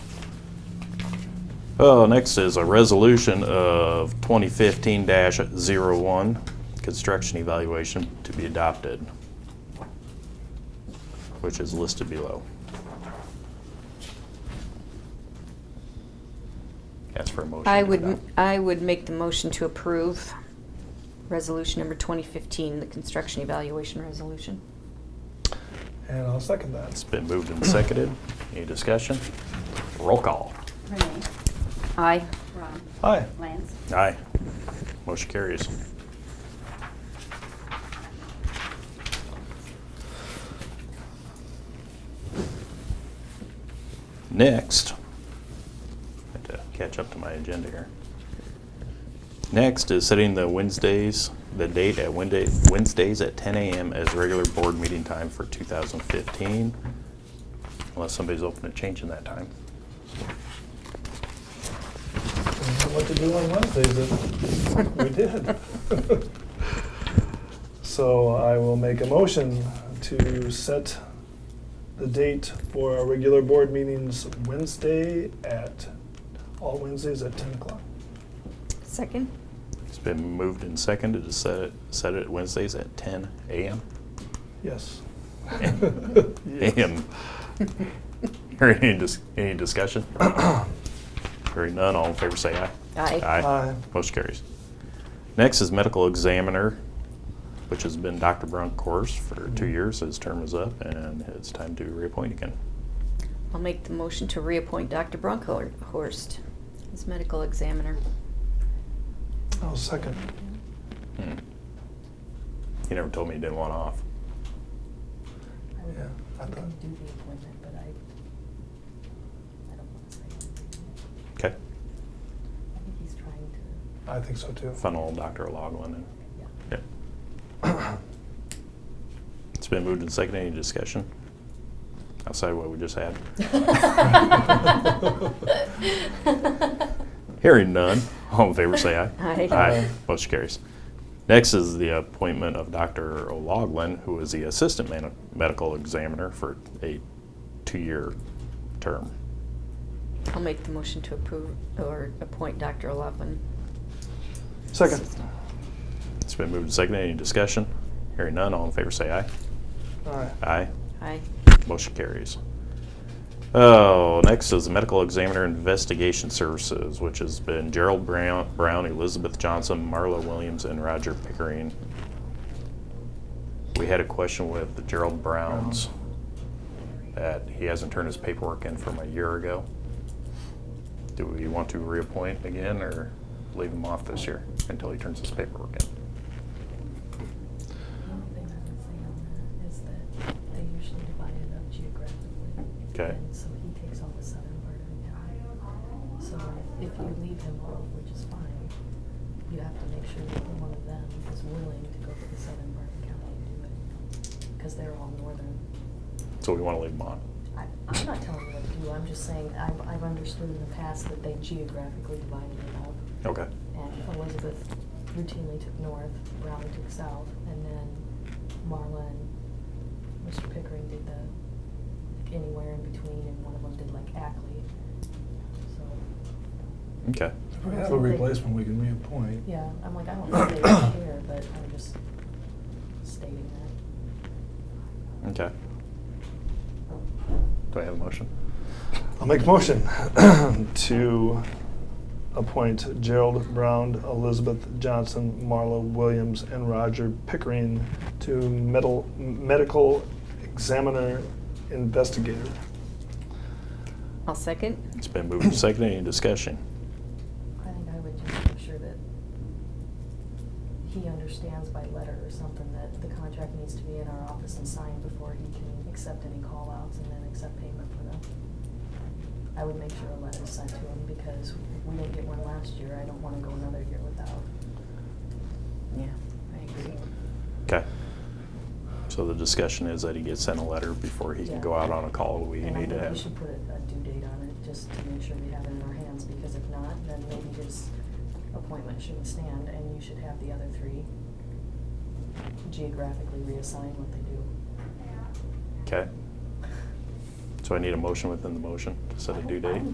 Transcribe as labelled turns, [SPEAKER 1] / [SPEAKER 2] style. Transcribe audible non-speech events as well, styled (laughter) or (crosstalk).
[SPEAKER 1] Oh, next is a resolution of 2015-01, construction evaluation to be adopted, which is listed below. Ask for a motion.
[SPEAKER 2] I
[SPEAKER 1] to
[SPEAKER 2] would,
[SPEAKER 1] adopt.
[SPEAKER 2] I would make the motion to approve resolution number 2015, the construction evaluation resolution.
[SPEAKER 3] And I'll second that.
[SPEAKER 1] It's been moved and seconded. Any discussion? Roll call.
[SPEAKER 4] Renee,
[SPEAKER 2] Aye.
[SPEAKER 4] Ron,
[SPEAKER 3] Aye.
[SPEAKER 4] Lance.
[SPEAKER 1] Aye. Motion carries. Next, I have to catch up to my agenda here. Next is setting the Wednesdays, the date at Wednesday, Wednesdays at 10 a.m. as regular board meeting time for 2015, unless somebody's open to changing that time.
[SPEAKER 3] We know What to do on Wednesdays, if we did. (laughs) So I will make a motion to set the date for our regular board meetings Wednesday at, all Wednesdays at 10 o'clock.
[SPEAKER 2] Second?
[SPEAKER 1] It's been moved and seconded to set it, set it Wednesdays at 10 a.m.
[SPEAKER 3] Yes.
[SPEAKER 1] Am, hearing any, dis- any discussion? Hearing none, all in favor say aye.
[SPEAKER 2] Aye.
[SPEAKER 3] Aye.
[SPEAKER 1] Motion carries. Next is medical examiner, which has been Dr. Brown course for two years. His term is up and it's time to reappoint again.
[SPEAKER 2] I'll make the motion to reappoint Dr. Bronkhorst as medical examiner.
[SPEAKER 3] I'll second.
[SPEAKER 1] Hmm. He never told me he didn't want off.
[SPEAKER 3] Yeah, I
[SPEAKER 4] I
[SPEAKER 3] thought-
[SPEAKER 4] can do the appointment, but I, I don't want to say anything.
[SPEAKER 1] Okay,
[SPEAKER 4] I think he's trying to,
[SPEAKER 3] I think so too.
[SPEAKER 1] funnel Dr. Logwin in.
[SPEAKER 4] yeah.
[SPEAKER 1] Yeah. It's been moved and seconded. Any discussion? Outside what we just had?
[SPEAKER 4] (laughs)
[SPEAKER 1] Hearing none, all in favor say aye.
[SPEAKER 2] Aye.
[SPEAKER 1] Aye. Motion carries. Next is the appointment of Dr. O'Loughlin, who is the Assistant man- Medical Examiner for a two-year term.
[SPEAKER 2] I'll make the motion to approve or appoint Dr. Lovin.
[SPEAKER 3] Second.
[SPEAKER 1] It's been moved and seconded. Any discussion? Hearing none, all in favor say aye.
[SPEAKER 3] Aye.
[SPEAKER 1] Aye.
[SPEAKER 2] Aye.
[SPEAKER 1] Motion carries. Oh, next is the Medical Examiner Investigation Services, which has been Gerald Brown, Brown, Elizabeth Johnson, Marla Williams, and Roger Pickering. We had a question with the Gerald Browns that he hasn't turned his paperwork in from a year ago. Do we want to reappoint again or leave him off this year until he turns his paperwork in?
[SPEAKER 4] The only thing I would say on that is that they usually divide it up geographically.
[SPEAKER 1] Okay.
[SPEAKER 4] And so he takes all the southern part of the county. So if you leave him off, which is fine, you have to make sure that one of them is willing to go to the southern part of the county and do it. Because they're all northern.
[SPEAKER 1] So we want to leave him on?
[SPEAKER 4] I, I'm not telling you what to do, I'm just saying, I've, I've understood in the past that they geographically divided it up.
[SPEAKER 1] Okay.
[SPEAKER 4] And Elizabeth routinely took north, Raleigh took south, and then Marla and Mr. Pickering did the, like anywhere in between, and one of them did like Ackley. So,
[SPEAKER 1] Okay.
[SPEAKER 3] If we have a replacement, we can reappoint.
[SPEAKER 4] yeah, I'm like, I don't know if they were (coughs) here, but I'm just stating that.
[SPEAKER 1] Okay. Do I have a motion?
[SPEAKER 3] I'll make a motion (clears throat) to appoint Gerald Brown, Elizabeth Johnson, Marla Williams, and Roger Pickering to medal, medical examiner investigator.
[SPEAKER 2] I'll second.
[SPEAKER 1] It's been moved and seconded. Any discussion?
[SPEAKER 4] I think I would just make sure that he understands by letter or something that the contract needs to be in our office and signed before he can accept any call-outs and then accept payment for them. I would make sure a letter's sent to him because we didn't get one last year. I don't wanna go another year without.
[SPEAKER 2] Yeah, I agree.
[SPEAKER 1] Okay. So the discussion is that he gets sent a letter before he can go out on a call. We
[SPEAKER 4] And I
[SPEAKER 1] need to
[SPEAKER 4] think
[SPEAKER 1] have.
[SPEAKER 4] we should put a a due date on it, just to make sure we have it in our hands, because if not, then maybe his appointment shouldn't stand, and you should have the other three geographically reassign what they do.
[SPEAKER 1] Okay. So I need a motion within the motion to set a due date.